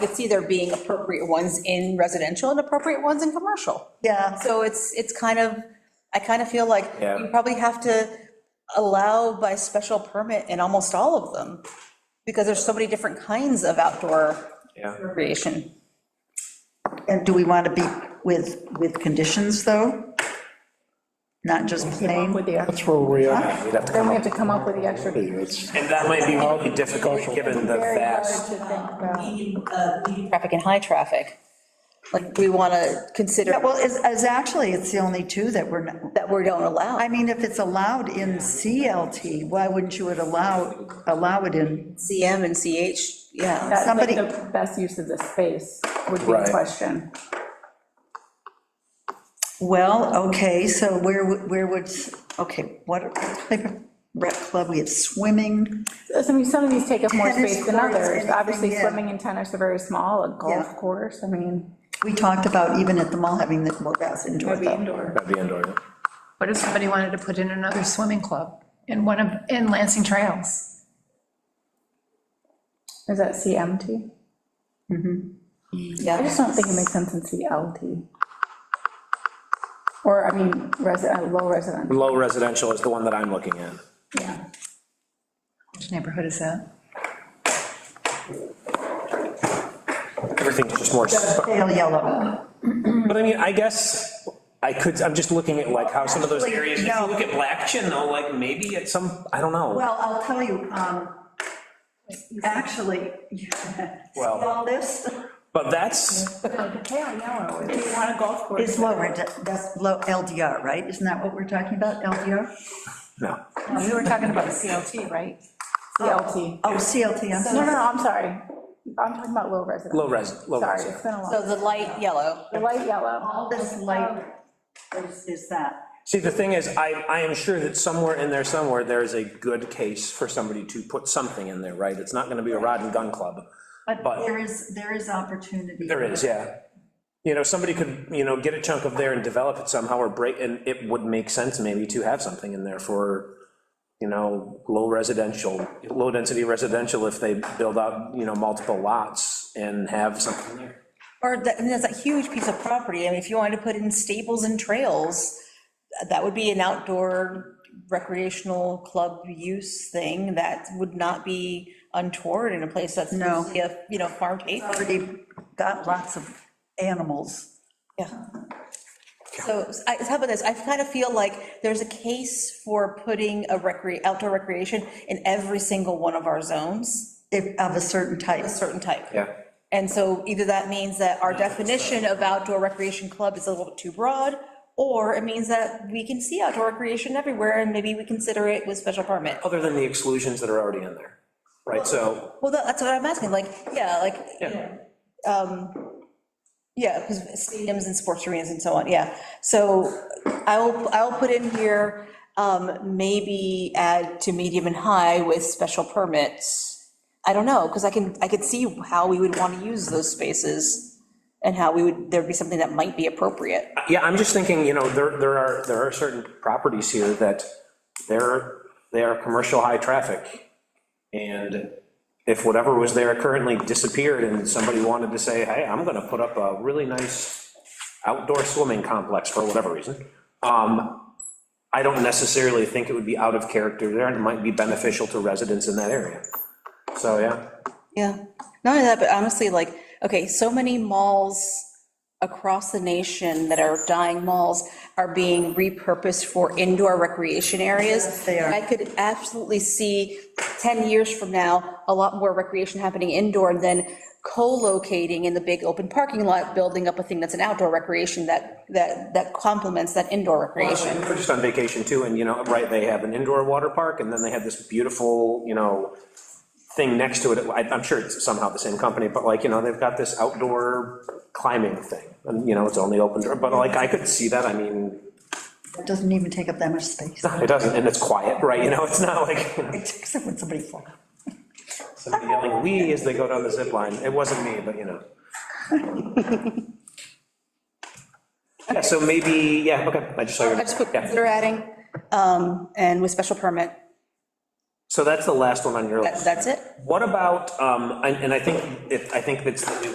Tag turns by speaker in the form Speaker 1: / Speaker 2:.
Speaker 1: could see there being appropriate ones in residential and appropriate ones in commercial.
Speaker 2: Yeah.
Speaker 1: So it's, it's kind of, I kind of feel like
Speaker 3: Yeah.
Speaker 1: you probably have to allow by special permit in almost all of them, because there's so many different kinds of outdoor
Speaker 3: Yeah.
Speaker 1: recreation.
Speaker 2: And do we want to be with, with conditions, though? Not just plain?
Speaker 4: With the, ex-
Speaker 5: That's where we are.
Speaker 3: We'd have to
Speaker 4: then
Speaker 3: come
Speaker 4: we
Speaker 3: up-
Speaker 4: have to come up with the extra. Very
Speaker 5: It's
Speaker 3: And that might be really difficult, given the
Speaker 4: hard
Speaker 3: vast.
Speaker 4: to think about.
Speaker 1: Traffic and high traffic. Like, we want to consider
Speaker 2: Yeah, Well, it's, it's actually, it's the only two that we're, not-
Speaker 1: that we don't allow.
Speaker 2: I mean, if it's allowed in CLT, why wouldn't you would allow, allow it in?
Speaker 1: CM and CH, yeah.
Speaker 4: That's like
Speaker 2: Somebody-
Speaker 4: the best use of the space would be the
Speaker 3: Right.
Speaker 4: question.
Speaker 2: Well, okay, so where, would- where would, okay, what type of rec club? We have swimming,
Speaker 4: I mean, some of these take up more
Speaker 2: Tennis
Speaker 4: space than
Speaker 2: courts,
Speaker 4: others. Obviously,
Speaker 2: anything, yeah.
Speaker 4: swimming and tennis are very small, a golf
Speaker 2: Yeah.
Speaker 4: course, I mean.
Speaker 2: we talked about even at the mall having the, well, that's indoor though.
Speaker 6: indoor.
Speaker 3: That'd be indoor. yeah.
Speaker 6: What if somebody wanted to put in another swimming club in one of, in Lansing Trails?
Speaker 4: Is that CMT? Mm-hmm. I
Speaker 1: Yeah,
Speaker 4: just don't think it makes sense in CLT. Or, I mean, resident, low resident,
Speaker 3: Low residential is the one that I'm looking at.
Speaker 4: yeah.
Speaker 6: Which neighborhood is that?
Speaker 3: Everything's just more, sp-
Speaker 2: Pale yellow.
Speaker 3: but I mean, I guess I could, I'm just looking at like how some of those
Speaker 2: Actually,
Speaker 3: areas, if
Speaker 2: no.
Speaker 3: you look at Blackchin though, like maybe at some, I don't know.
Speaker 2: Well, I'll tell you, um, actually, see
Speaker 3: Well.
Speaker 2: all this
Speaker 3: But that's,
Speaker 4: Like, Pale yellow, if you want a golf course.
Speaker 2: is lower, that's low LDR, right? Isn't that what we're talking about, LDR?
Speaker 3: no.
Speaker 4: No, We were talking about CLT, right? CLT.
Speaker 2: Oh, CLT, I'm
Speaker 4: No, no,
Speaker 2: sorry.
Speaker 4: no, I'm sorry. I'm talking about low resident.
Speaker 3: Low res, low
Speaker 4: Sorry,
Speaker 3: res.
Speaker 4: it's been a
Speaker 1: so
Speaker 4: long,
Speaker 1: the light yellow,
Speaker 4: the light yellow.
Speaker 2: All this light is, is that.
Speaker 3: See, the thing is, I, I am sure that somewhere in there, somewhere, there is a good case for somebody to put something in there, right? It's not gonna be a rod and gun club.
Speaker 2: But
Speaker 3: But-
Speaker 2: there is, there is opportunity.
Speaker 3: There is, yeah. You know, somebody could, you know, get a chunk of there and develop it somehow, or break, and it would make sense maybe to have something in there for, you know, low residential, low-density residential, if they build out, you know, multiple lots and have something there.
Speaker 1: or that, and that's a huge piece of property. I mean, if you wanted to put in stables and trails, that would be an outdoor recreational club use thing that would not be untoward in a place that's
Speaker 2: No. Oh.
Speaker 1: mostly a, you know, farm paper.
Speaker 2: Already got lots of animals.
Speaker 1: Yeah. So I, how about this, I kind of feel like there's a case for putting a recre, outdoor recreation in every single one of our zones,
Speaker 2: if- of a certain type.
Speaker 1: a certain type.
Speaker 3: Yeah.
Speaker 1: And so either that means that our definition of outdoor recreation club is a little bit too broad, or it means that we can see outdoor recreation everywhere, and maybe we consider it with special permit.
Speaker 3: Other than the exclusions that are already in there, right? So,
Speaker 1: Well, that- that's what I'm asking, like, yeah, like, you know, um, yeah, because stadiums and sports arenas and so on, yeah. So I'll, I'll put in here, um, maybe add to medium and high with special permits. I don't know, because I can, I could see how we would want to use those spaces and how we would, there'd be something that might be appropriate.
Speaker 3: yeah, I'm just thinking, you know, there, there are, there are certain properties here that they're, they are commercial high traffic. And if whatever was there currently disappeared and somebody wanted to say, hey, I'm gonna put up a really nice outdoor swimming complex for whatever reason, um, I don't necessarily think it would be out of character there, and it might be beneficial to residents in that area. So, yeah,
Speaker 1: Yeah, not only that, but honestly, like, okay, so many malls across the nation that are dying malls are being repurposed for indoor recreation areas.
Speaker 2: they are.
Speaker 1: I could absolutely see 10 years from now, a lot more recreation happening indoor than co-locating in the big open parking lot, building up a thing that's an outdoor recreation that, that, that complements that indoor recreation.
Speaker 3: We We're just on vacation too, and you know, right, they have an indoor water park, and then they have this beautiful, you know, thing next to it, I- I'm sure it's somehow the same company, but like, you know, they've got this outdoor climbing thing, and you know, it's only open, door, but like, I could see that, I mean,
Speaker 2: It doesn't even take up that much space.
Speaker 3: it doesn't, and it's quiet, right, you know, it's not like, you know,
Speaker 2: Except when somebody falls.
Speaker 3: somebody yelling, "Wee" as they go down the zip line, it wasn't me, but you know. Yeah, so maybe, yeah, okay, I just saw your.
Speaker 1: I just put,
Speaker 3: yeah.
Speaker 1: consider adding, um, and with special permit,
Speaker 3: So that's the last one on your list.
Speaker 1: that, that's it.
Speaker 3: What about, um, and and I think, it- I think that's,